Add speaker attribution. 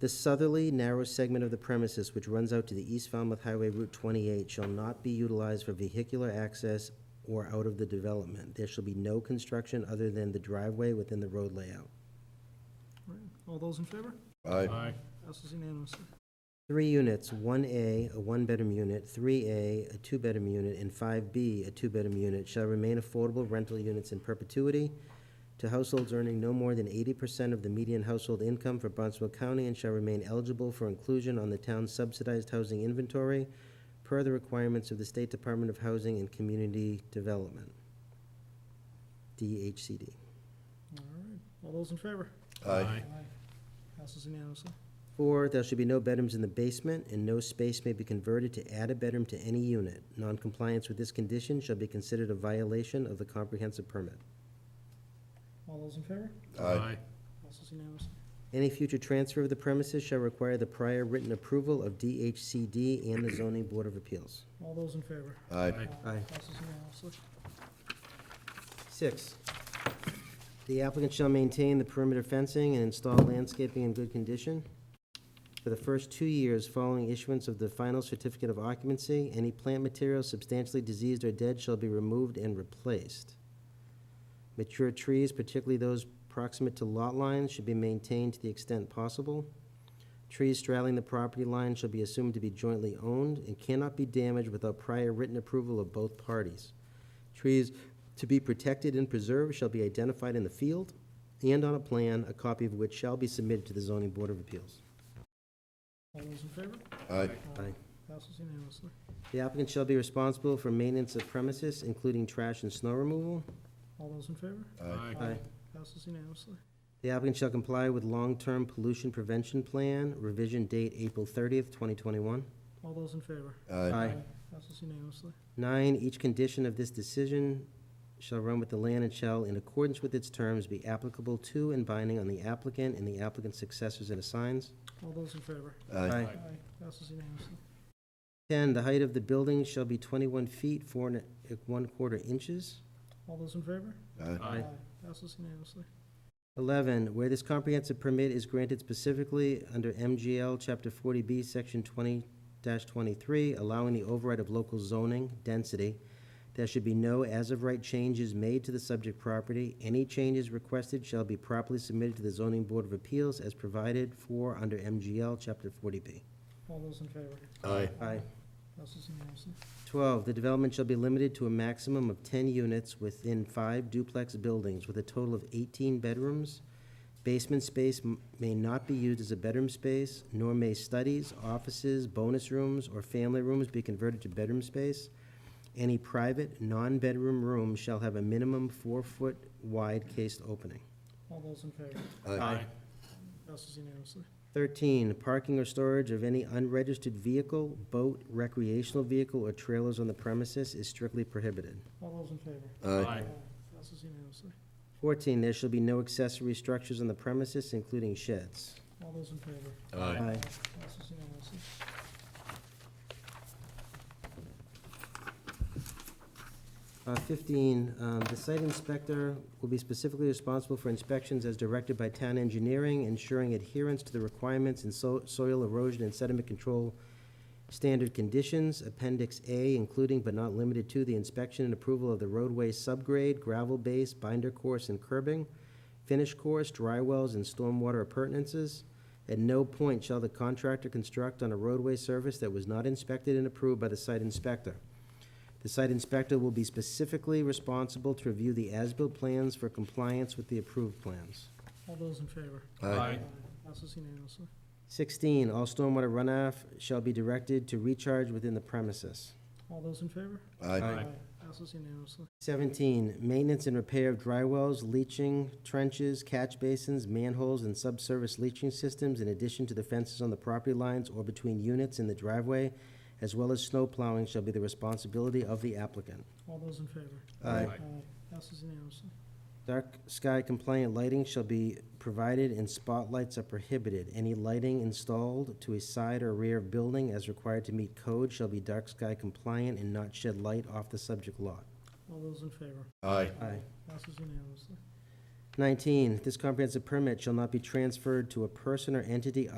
Speaker 1: The southerly narrow segment of the premises which runs out to the East Falmouth Highway Route 28 shall not be utilized for vehicular access or out of the development. There shall be no construction other than the driveway within the road layout.
Speaker 2: All those in favor?
Speaker 3: Aye.
Speaker 2: Passes unanimously.
Speaker 1: Three units, one A, a one-bedroom unit, three A, a two-bedroom unit, and five B, a two-bedroom unit, shall remain affordable rental units in perpetuity to households earning no more than eighty percent of the median household income for Barnstable County and shall remain eligible for inclusion on the town's subsidized housing inventory per the requirements of the State Department of Housing and Community Development, DHCD.
Speaker 2: All right. All those in favor?
Speaker 3: Aye.
Speaker 2: Passes unanimously.
Speaker 1: Four, there should be no bedrooms in the basement, and no space may be converted to add a bedroom to any unit. Noncompliance with this condition shall be considered a violation of the comprehensive permit.
Speaker 2: All those in favor?
Speaker 3: Aye.
Speaker 2: Passes unanimously.
Speaker 1: Any future transfer of the premises shall require the prior written approval of DHCD and the zoning board of appeals.
Speaker 2: All those in favor?
Speaker 3: Aye.
Speaker 1: Aye.
Speaker 2: Passes unanimously.
Speaker 1: Six, the applicant shall maintain the perimeter fencing and install landscaping in good condition. For the first two years following issuance of the final certificate of occupancy, any plant material substantially diseased or dead shall be removed and replaced. Mature trees, particularly those proximate to lot lines, should be maintained to the extent possible. Trees straddling the property line shall be assumed to be jointly owned and cannot be damaged without prior written approval of both parties. Trees to be protected and preserved shall be identified in the field and on a plan, a copy of which shall be submitted to the zoning board of appeals.
Speaker 2: All those in favor?
Speaker 3: Aye.
Speaker 1: Aye.
Speaker 2: Passes unanimously.
Speaker 1: The applicant shall be responsible for maintenance of premises, including trash and snow removal.
Speaker 2: All those in favor?
Speaker 3: Aye.
Speaker 1: Aye.
Speaker 2: Passes unanimously.
Speaker 1: The applicant shall comply with long-term pollution prevention plan, revision date April thirtieth, twenty twenty-one.
Speaker 2: All those in favor?
Speaker 3: Aye.
Speaker 2: Passes unanimously.
Speaker 1: Nine, each condition of this decision shall run with the land and shall, in accordance with its terms, be applicable to and binding on the applicant and the applicant's successors and assigns.
Speaker 2: All those in favor?
Speaker 3: Aye.
Speaker 2: Aye. Passes unanimously.
Speaker 1: 10, the height of the building shall be 21 feet, 4 and a- 1 quarter inches.
Speaker 2: All those in favor?
Speaker 3: Aye.
Speaker 1: Aye.
Speaker 2: Passes unanimously.
Speaker 1: 11, where this comprehensive permit is granted specifically under MGL Chapter 40B, Section 20-23, allowing the override of local zoning density, there should be no as-of-right changes made to the subject property. Any changes requested shall be properly submitted to the Zoning Board of Appeals as provided for under MGL Chapter 40B.
Speaker 2: All those in favor?
Speaker 3: Aye.
Speaker 1: Aye.
Speaker 2: Passes unanimously.
Speaker 1: 12, the development shall be limited to a maximum of 10 units within five duplex buildings with a total of 18 bedrooms. Basement space m- may not be used as a bedroom space, nor may studies, offices, bonus rooms, or family rooms be converted to bedroom space. Any private, non-bedroom room shall have a minimum four-foot wide cased opening.
Speaker 2: All those in favor?
Speaker 3: Aye.
Speaker 2: Passes unanimously.
Speaker 1: 13, parking or storage of any unregistered vehicle, boat, recreational vehicle, or trailers on the premises is strictly prohibited.
Speaker 2: All those in favor?
Speaker 3: Aye.
Speaker 2: Passes unanimously.
Speaker 1: 14, there shall be no accessory structures on the premises, including sheds.
Speaker 2: All those in favor?
Speaker 3: Aye.
Speaker 2: Passes unanimously.
Speaker 1: Uh, 15, um, the site inspector will be specifically responsible for inspections as directed by town engineering, ensuring adherence to the requirements in so- soil erosion and sediment control standard conditions, Appendix A, including but not limited to the inspection and approval of the roadway subgrade, gravel base, binder course, and curbing, finish course, dry wells, and stormwater appurtenances. At no point shall the contractor construct on a roadway surface that was not inspected and approved by the site inspector. The site inspector will be specifically responsible to review the as-built plans for compliance with the approved plans.
Speaker 2: All those in favor?
Speaker 3: Aye.
Speaker 2: Passes unanimously.
Speaker 1: Sixteen, all stormwater runoff shall be directed to recharge within the premises.
Speaker 2: All those in favor?
Speaker 3: Aye.
Speaker 2: Passes unanimously.
Speaker 1: Seventeen, maintenance and repair of dry wells, leaching, trenches, catch basins, manholes, and subsurface leaching systems in addition to the fences on the property lines or between units in the driveway, as well as snow plowing shall be the responsibility of the applicant.
Speaker 2: All those in favor?
Speaker 3: Aye.
Speaker 2: Passes unanimously.
Speaker 1: Dark sky compliant lighting shall be provided and spotlights are prohibited. Any lighting installed to a side or rear of building as required to meet code shall be dark sky compliant and not shed light off the subject lot.
Speaker 2: All those in favor?
Speaker 3: Aye.
Speaker 1: Aye.
Speaker 2: Passes unanimously.
Speaker 1: Nineteen, this comprehensive permit shall not be transferred to a person or entity